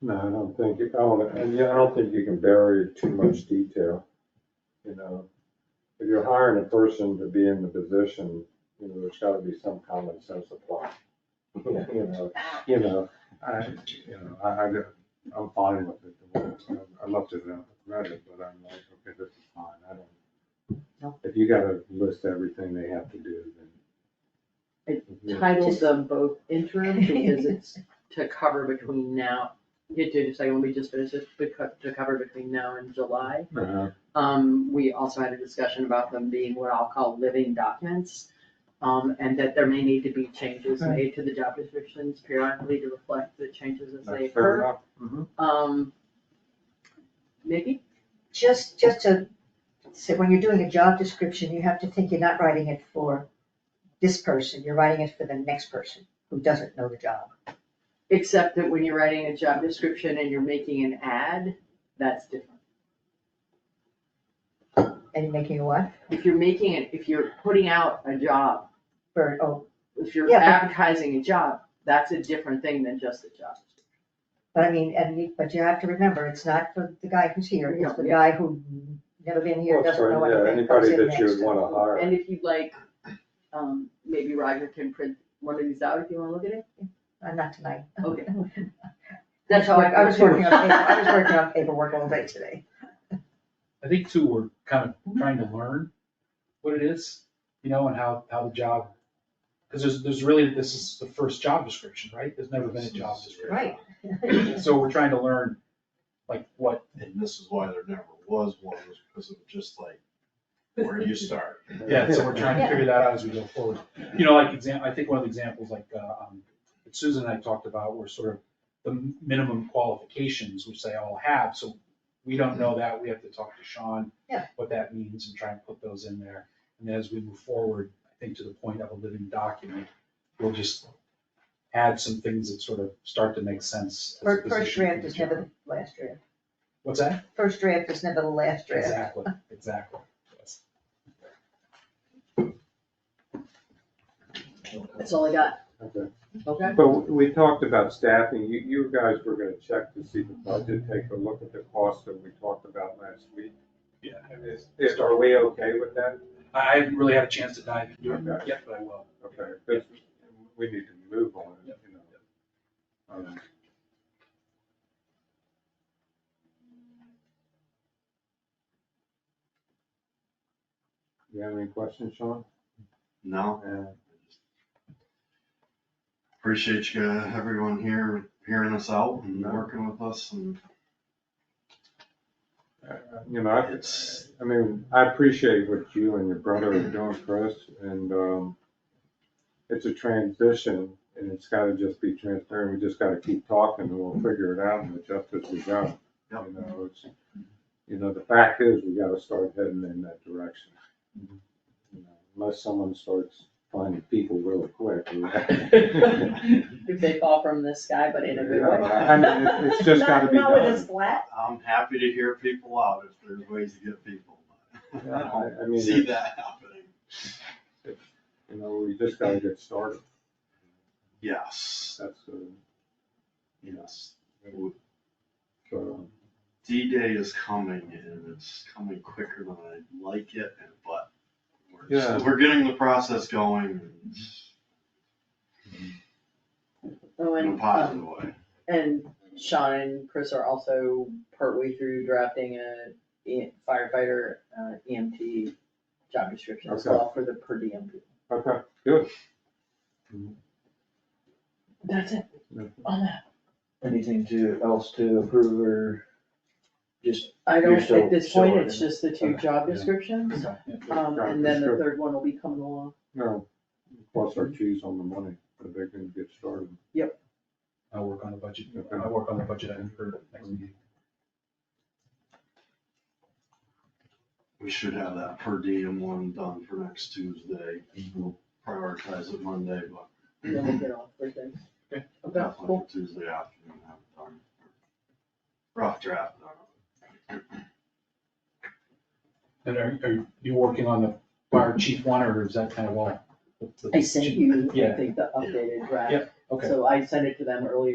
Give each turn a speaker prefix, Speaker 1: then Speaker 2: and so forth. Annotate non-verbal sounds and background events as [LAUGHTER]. Speaker 1: No, I don't think, you- I don't, and yeah, I don't think you can bury too much detail, you know. If you're hiring a person to be in the position, you know, there's gotta be some common sense applied.
Speaker 2: [LAUGHS]
Speaker 1: [LAUGHS] You know, you know, I, you know, I, I, don't- I'm fine with it. I looked at it, and read it, but I'm like, okay, this is fine, I don't. If you gotta list everything they have to do, then.
Speaker 3: It- titled them both interim because it's to cover between now, get to the second one we just finished, it's beco- to cover between now and July.
Speaker 1: Uh-huh.
Speaker 3: Um, we also had a discussion about them being what I'll call living documents. Um, and that there may need to be changes made to the job descriptions periodically to reflect the changes as they
Speaker 1: That's fair
Speaker 3: occur.
Speaker 1: enough.
Speaker 3: Um, Nikki?
Speaker 2: Just, just to say, when you're doing a job description, you have to think you're not writing it for this person, you're writing it for the next person who doesn't know the job.
Speaker 3: Except that when you're writing a job description and you're making an ad, that's different.
Speaker 2: And you're making a what?
Speaker 3: If you're making it, if you're putting out a job,
Speaker 2: For, oh,
Speaker 3: if you're
Speaker 2: Yeah, but-
Speaker 3: advertising a job, that's a different thing than just a job.
Speaker 2: but I mean, and you, but you have to remember, it's not for the guy who's here, it's the
Speaker 3: No, yeah.
Speaker 2: guy who never been here,
Speaker 1: Well,
Speaker 2: doesn't know
Speaker 1: for- yeah,
Speaker 2: anything, comes
Speaker 1: anybody
Speaker 2: in
Speaker 1: that you
Speaker 2: next.
Speaker 1: would wanna hire.
Speaker 3: And if you'd like, um, maybe Roger can print one of these out if you wanna look at it.
Speaker 2: Uh, Not tonight.
Speaker 3: Okay.
Speaker 2: [LAUGHS] That's how I, I was
Speaker 3: do it.
Speaker 2: working on, paper- I was working on paperwork all day today.
Speaker 4: I think too, we're kind of trying to learn what it is, you know, and how, how the job, because there's, there's really, this is the first job description, right? There's never been a job description. Right. So we're trying to learn, like, what,
Speaker 5: And this is why there never was one, was because it was just like, where do you start?
Speaker 4: yeah, so we're trying to figure that out as we go forward. You know, like example, I think one of the examples, like, uh, um, that Susan and I talked about were sort of the minimum qualifications, which they all have, so we don't know that, we have to talk to Sean.
Speaker 2: Yeah.
Speaker 4: What that means and try and put those in there, and as we move forward, I think to the point of a living document, we'll just add some things that sort of start to make sense. as a
Speaker 2: First, first
Speaker 4: position
Speaker 2: draft
Speaker 4: for
Speaker 2: is
Speaker 4: the
Speaker 2: never
Speaker 4: job.
Speaker 2: the last draft.
Speaker 4: What's that?
Speaker 2: First draft is never the last draft.
Speaker 4: Exactly, exactly, yes.
Speaker 3: That's all I got,
Speaker 1: Okay.
Speaker 3: okay?
Speaker 1: But we talked about staffing, you, you guys were gonna check to see the budget, take a look at the cost that we talked about last week.
Speaker 4: Yeah.
Speaker 1: Is, is- are we okay with that?
Speaker 4: I I haven't really had a chance to dive into it
Speaker 1: Okay.
Speaker 4: yet, but I will.
Speaker 1: Okay, but we need to move on, you know. Um, You have any questions, Sean?
Speaker 5: [LAUGHS] No,
Speaker 1: Uh,
Speaker 5: appreciate you, uh, everyone here, hearing us out and
Speaker 1: No.
Speaker 5: working with us [LAUGHS] and
Speaker 1: You know, I,
Speaker 5: it's,
Speaker 1: I mean, I appreciate what you and your brother are doing for us and, um, it's a transition and it's gotta just be transparent. We just gotta keep talking and we'll figure it out and adjust as we go. You
Speaker 5: Yep.
Speaker 1: know, it's, you know, the fact is we gotta start heading in that direction. You know, Unless someone starts finding people really quick. [LAUGHS] we're-
Speaker 3: [LAUGHS] If they fall from the sky, but in a good
Speaker 1: [LAUGHS]
Speaker 3: way.
Speaker 1: I mean, it's- it's just gotta be
Speaker 2: Not- not with
Speaker 1: done.
Speaker 2: his flat.
Speaker 5: I'm happy to hear people out if there's ways to get people. [LAUGHS] I don't
Speaker 1: I- I mean,
Speaker 5: See
Speaker 1: it's-
Speaker 5: that happening.
Speaker 1: You know, we just gotta get started.
Speaker 5: Yes,
Speaker 1: That's, uh,
Speaker 5: yes.
Speaker 1: so,
Speaker 5: D-Day is coming and it's coming quicker than I'd like it, and but we're,
Speaker 1: Yeah.
Speaker 5: we're getting the process going
Speaker 3: [LAUGHS] Oh,
Speaker 5: in a
Speaker 3: and,
Speaker 5: positive
Speaker 3: um,
Speaker 5: way.
Speaker 3: and Sean and Chris are also partway through drafting a E- firefighter, uh, EMT job description as
Speaker 1: Okay.
Speaker 3: well for the per diem people.
Speaker 1: okay, good.
Speaker 3: That's it,
Speaker 1: Yeah.
Speaker 3: on that.
Speaker 6: Anything to, else to approve or just,
Speaker 3: I
Speaker 6: You're
Speaker 3: don't,
Speaker 6: still-
Speaker 3: at this
Speaker 6: still
Speaker 3: point,
Speaker 6: working
Speaker 3: it's just the two
Speaker 6: Okay,
Speaker 3: job
Speaker 4: yeah.
Speaker 3: descriptions, um,
Speaker 1: Job
Speaker 3: and then the
Speaker 1: descrip-
Speaker 3: third one will be coming along.
Speaker 1: No, cross our T's on the money, but they can get started.
Speaker 4: I'll work on the budget, I'll work on the budget item for next meeting.
Speaker 5: We should have that per diem one done for next Tuesday. We'll prioritize it Monday, but
Speaker 3: Then we'll get on Thursday.
Speaker 4: Okay.
Speaker 3: Okay,
Speaker 5: definitely
Speaker 3: cool.
Speaker 5: Tuesday afternoon have it done. Rough draft. though.
Speaker 4: And are, are you working on the fire chief one, or is that kind of all?
Speaker 3: I sent you, I
Speaker 4: Yeah.
Speaker 3: think, the updated draft,
Speaker 4: Okay.
Speaker 3: so I sent it to them earlier